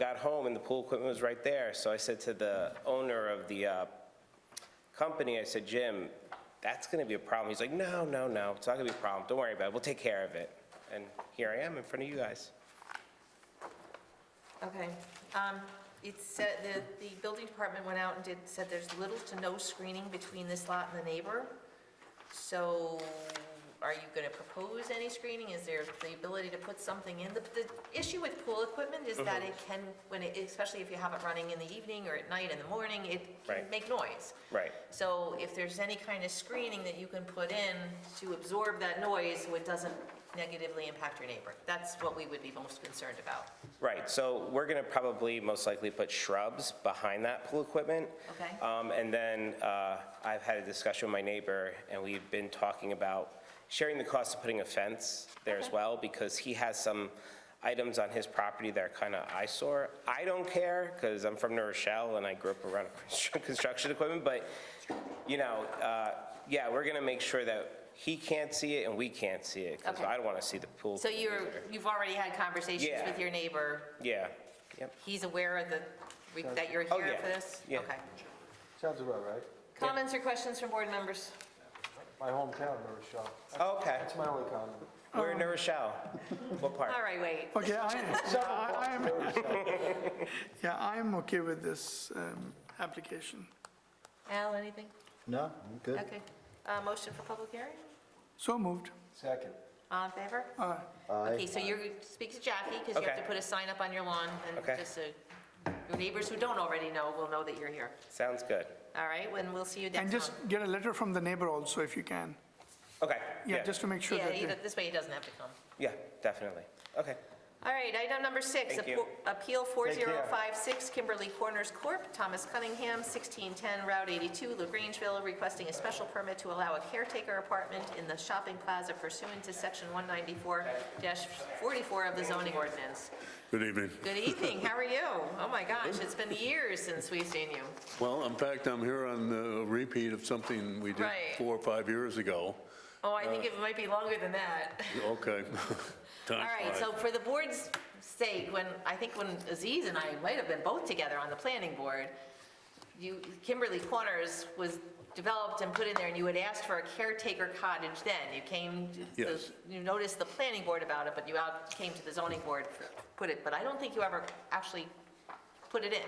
got home and the pool equipment was right there. So I said to the owner of the uh, company, I said, Jim, that's going to be a problem. He's like, no, no, no, it's not going to be a problem. Don't worry about it. We'll take care of it. And here I am in front of you guys. Okay, um, it said, the, the building department went out and did, said there's little to no screening between this lot and the neighbor. So are you gonna propose any screening? Is there the ability to put something in? The, the issue with pool equipment is that it Mm-hmm. can, when it, especially if you have it running in the evening or at night in the morning, it can Right. make noise. Right. So if there's any kind of screening that you can put in to absorb that noise so it doesn't negatively impact your neighbor, that's what we would be most concerned about. Right, so we're going to probably most likely put shrubs behind that pool equipment. Okay. Um, And then uh, I've had a discussion with my neighbor, and we've been talking about sharing the cost of putting a fence there as Okay. well, because he has some items on his property that are kind of eyesore. I don't care, because I'm from New Rochelle, and I grew up around construction equipment, but, you know, uh, yeah, we're going to make sure that he can't see it and we can't see it, because Okay. I don't want to see the pool. So you're, you've already had conversations Yeah. with your neighbor? Yeah, yep. He's aware of the, re- that you're Oh, here yeah. for this? Yeah. Okay. Sounds about right. Comments or questions from board members? My hometown, New Rochelle. Okay. That's my only comment. We're in Oh. New Rochelle. What part? All right, wait. Okay, I, I I am, yeah, I am okay with this um, application. Al, anything? No, good. Okay. Uh, Motion for public hearing? So moved. Uh, Second. All in favor? Aye. Okay, so you're, speak to Jackie, because you have to Okay. put a sign up on your lawn, Okay. and just so your neighbors who don't already know will know that you're here. Sounds good. All right, and we'll see you And next just month. get a letter from the neighbor also, if you can. Okay. Yeah, just to make sure Yeah, that, he- they- this way he doesn't have to come. Yeah, definitely. Okay. All right, item number six, Thank you. Apo- Appeal 4056 Kimberly Corners Corp., Thomas Cunningham, 1610 Route 82, LaGrangeville, requesting a special permit to allow a caretaker apartment in the shopping plaza pursuant to Section 194-44 of the zoning ordinance. Good evening. Good evening, how are you? Oh my gosh, it's been years since we've seen you. Well, in fact, I'm here on the repeat of something we did Right. four or five years ago. Oh, I Uh, think it might be longer than that. Okay. All right, so for the board's sake, when, I think when Aziz and I might have been both together on the planning board, you, Kimberly Corners was developed and put in there, and you had asked for a caretaker cottage then. You came, to- Yes. you noticed the planning board about it, but you out, came to the zoning board, for- put it, but I don't think you ever actually put it in.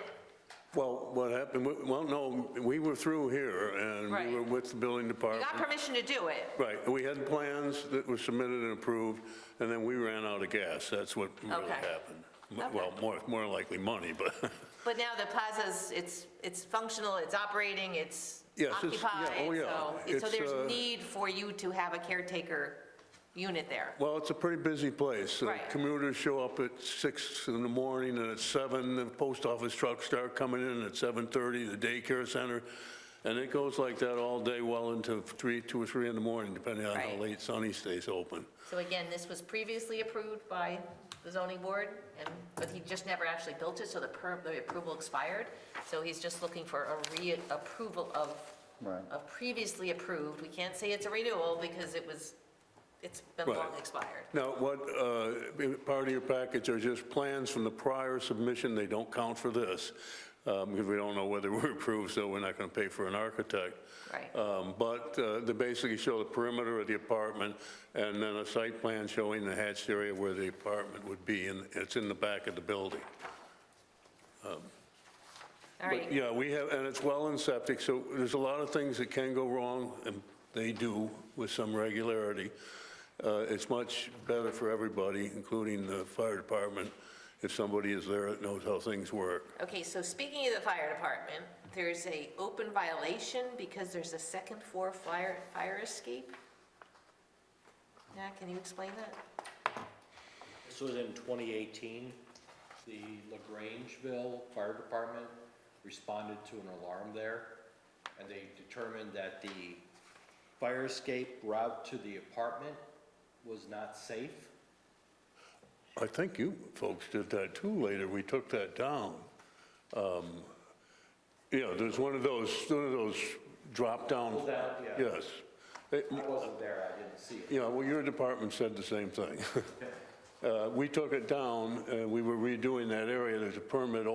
Well, what happened, we- well, no, we were through here and Right. we were with the building You department. got permission to do it. Right, we had plans that were submitted and approved, and then we ran out of gas. That's what really Okay. happened. M- Okay. Well, more, more likely money, but But now the plaza's, it's, it's functional, it's operating, it's Yes, it's- yeah, occupied, oh, yeah. so, so It's, uh, there's need for you to have a caretaker unit there. Well, it's a pretty busy place. The Right. Commuters show up at six in the morning, and at seven, the post office trucks start coming in, at 7:30, the daycare center, and it goes like that all day well into three, two or three in the morning, depending on how Right. late Sunny stays open. So again, this was previously approved by the zoning board, and, but he just never actually built it, so the per, the approval expired. So he's just looking for a reapproval of, Right. of previously approved. We can't say it's a renewal because it was, it's been long Right. expired. Now, what, uh, part of your package are just plans from the prior submission, they don't count for this, um, because we don't know whether we're approved, so we're not going to pay for an architect. Right. Um, But uh, they basically show the perimeter of the apartment, and then a site plan showing the hatched area where the apartment would be, and it's in the back of the building. All But, right. Yeah, we have, and it's well in septic, so there's a lot of things that can go wrong, and they do with some regularity. Uh, It's much better for everybody, including the fire department, if somebody is there that knows how things work. Okay, so speaking of the fire department, there's a open violation because there's a second floor fire, fire escape? Yeah, can you explain that? This was in 2018. The LaGrangeville Fire Department responded to an alarm there, and they determined that the fire escape route to the apartment was not safe. I think you folks did that too later, we took that down. Um, Yeah, there's one of those, one of those drop-down. Pull-down, yeah. Yes. It- I wasn't there, I didn't see it. Yeah, well, your department said the same thing. Uh, We took it down, uh, we were redoing that area, there's a permit